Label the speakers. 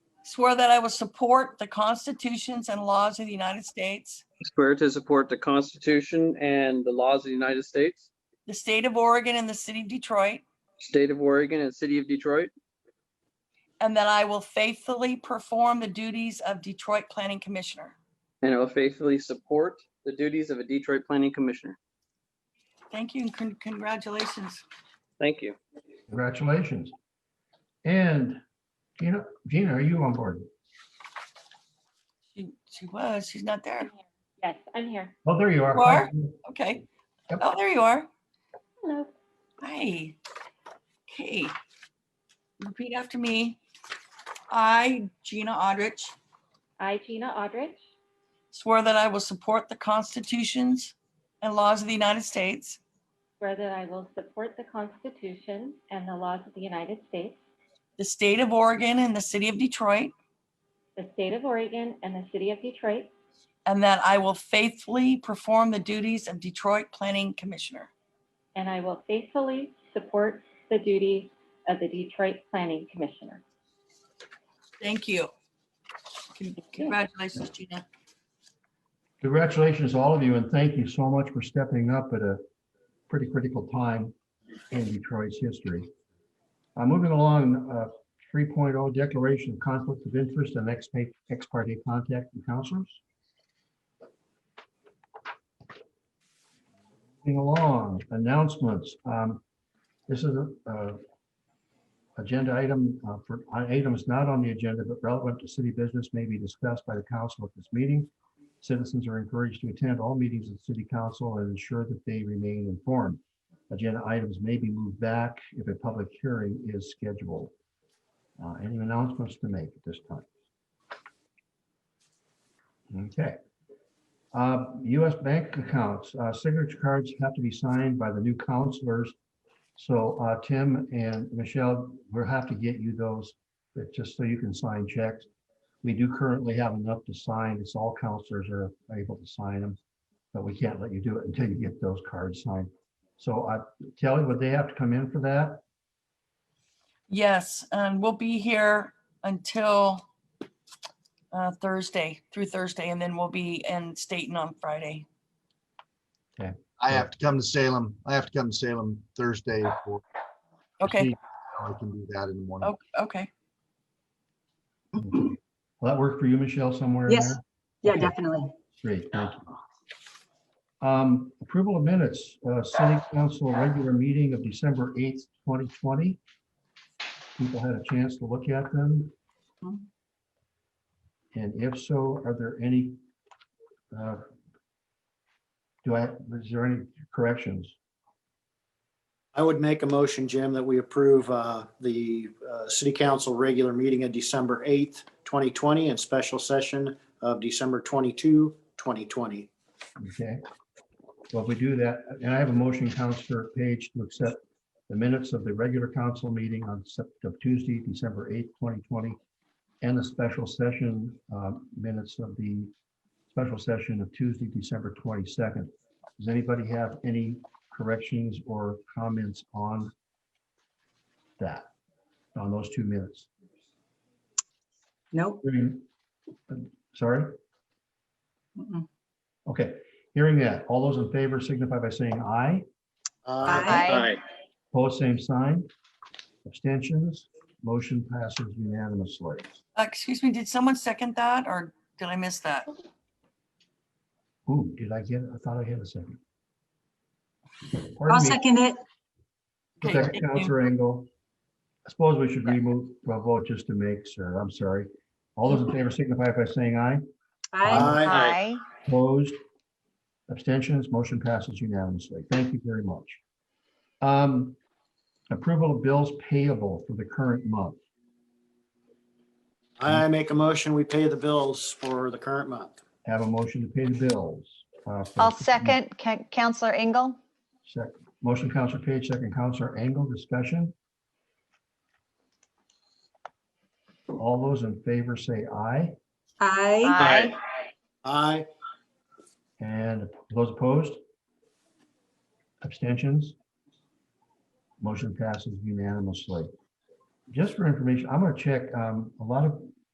Speaker 1: swear that I will support the constitutions and laws of the United States,
Speaker 2: swear to support the Constitution and the laws of the United States,
Speaker 1: the state of Oregon and the city of Detroit,
Speaker 2: state of Oregon, and city of Detroit,
Speaker 1: and that I will faithfully perform the duties of Detroit Planning Commissioner.
Speaker 2: and I will faithfully support the duties of a Detroit Planning Commissioner.
Speaker 1: Thank you and con- congratulations.
Speaker 2: Thank you.
Speaker 3: Congratulations. And Gina, Gina, are you on board?
Speaker 1: She she was, she's not there.
Speaker 4: Yes, I'm here.
Speaker 3: Oh, there you are.
Speaker 1: You are? Okay.
Speaker 3: Yep.
Speaker 1: Oh, there you are.
Speaker 4: Hello.
Speaker 1: Hi. Okay. Repeat after me. I, Gina Aldrich,
Speaker 4: I, Gina Aldrich,
Speaker 1: swear that I will support the constitutions and laws of the United States,
Speaker 4: swear that I will support the Constitution and the laws of the United States,
Speaker 1: the state of Oregon and the city of Detroit,
Speaker 4: the state of Oregon, and the city of Detroit,
Speaker 1: and that I will faithfully perform the duties of Detroit Planning Commissioner.
Speaker 4: and I will faithfully support the duties of the Detroit Planning Commissioner.
Speaker 1: Thank you. Con- Congratulations, Gina.
Speaker 3: Congratulations, to all of you, and thank you so much for stepping up at a pretty critical time in Detroit's history. Uh, Moving along, uh, 3.0 Declaration of Conflict of Interest and ex pa- ex parte contact with counselors. Moving along, announcements. Um, This is a uh, agenda item uh, for uh, items not on the agenda but relevant to city business may be discussed by the council at this meeting. Citizens are encouraged to attend all meetings of city council and ensure that they remain informed. Agenda items may be moved back if a public hearing is scheduled. Uh, Any announcements to make at this time? Okay. Uh, US bank accounts, uh, signature cards have to be signed by the new counselors. So uh, Tim and Michelle, we'll have to get you those, uh, just so you can sign checks. We do currently have enough to sign. It's all counselors are able to sign them. But we can't let you do it until you get those cards signed. So I tell you, would they have to come in for that?
Speaker 1: Yes, and we'll be here until uh, Thursday, through Thursday, and then we'll be in Staten on Friday.
Speaker 5: I
Speaker 3: Yeah.
Speaker 5: have to come to Salem. I have to come to Salem Thursday. for-
Speaker 1: Okay,
Speaker 5: I can do that in the morning.
Speaker 1: o- okay.
Speaker 3: Will that work for you, Michelle, somewhere? in
Speaker 6: Mm-hmm. Yes.
Speaker 3: there?
Speaker 6: Yeah,
Speaker 3: Okay.
Speaker 6: definitely.
Speaker 3: Great, thank you. Um, Approval of minutes, uh, city council regular meeting of December 8th, 2020. People had a chance to look at them.
Speaker 1: Mhm.
Speaker 3: And if so, are there any? uh, Do I, is there any corrections?
Speaker 7: I would make a motion, Jim, that we approve uh, the uh, city council regular meeting of December 8th, 2020, and special session of December 22, 2020.
Speaker 3: Okay. Well, if we do that, and I have a motion, Counselor Page, to accept the minutes of the regular council meeting on Sep- of Tuesday, December 8th, 2020, and the special session uh, minutes of the special session of Tuesday, December 22nd. Does anybody have any corrections or comments on that, on those two minutes?
Speaker 6: Nope.
Speaker 3: Hearing- Sorry?
Speaker 6: Mm-mm.
Speaker 3: Okay, hearing that, all those in favor signify by saying aye.
Speaker 7: Uh,
Speaker 6: Aye.
Speaker 3: Opposed, same sign. Abstentions, motion passes unanimously.
Speaker 1: Uh, Excuse me, did someone second that or did I miss that?
Speaker 3: Ooh, did I get, it? I thought I had a second.
Speaker 6: I'll
Speaker 3: Pardon me,
Speaker 6: second it.
Speaker 1: Okay,
Speaker 3: second,
Speaker 1: thank you.
Speaker 3: Counselor Engel. I suppose we should remove a vote just to make sure. I'm sorry. All those in favor signify by saying aye.
Speaker 6: Aye.
Speaker 8: Aye.
Speaker 3: Opposed? Abstentions? Motion passes unanimously. Thank you very much. Um, Approval of bills payable for the current month.
Speaker 7: I make a motion, we pay the bills for the current month.
Speaker 3: Have a motion to pay the bills. uh, for-
Speaker 8: I'll second Ca- Counselor Ingle.
Speaker 3: Second. Motion, Counselor Page, second, Counselor Angle, discussion. All those in favor say aye,
Speaker 6: Aye.
Speaker 8: Aye.
Speaker 7: Aye,
Speaker 3: and those opposed? Abstentions? Motion passes unanimously. Just for information, I'm going to check, um, a lot of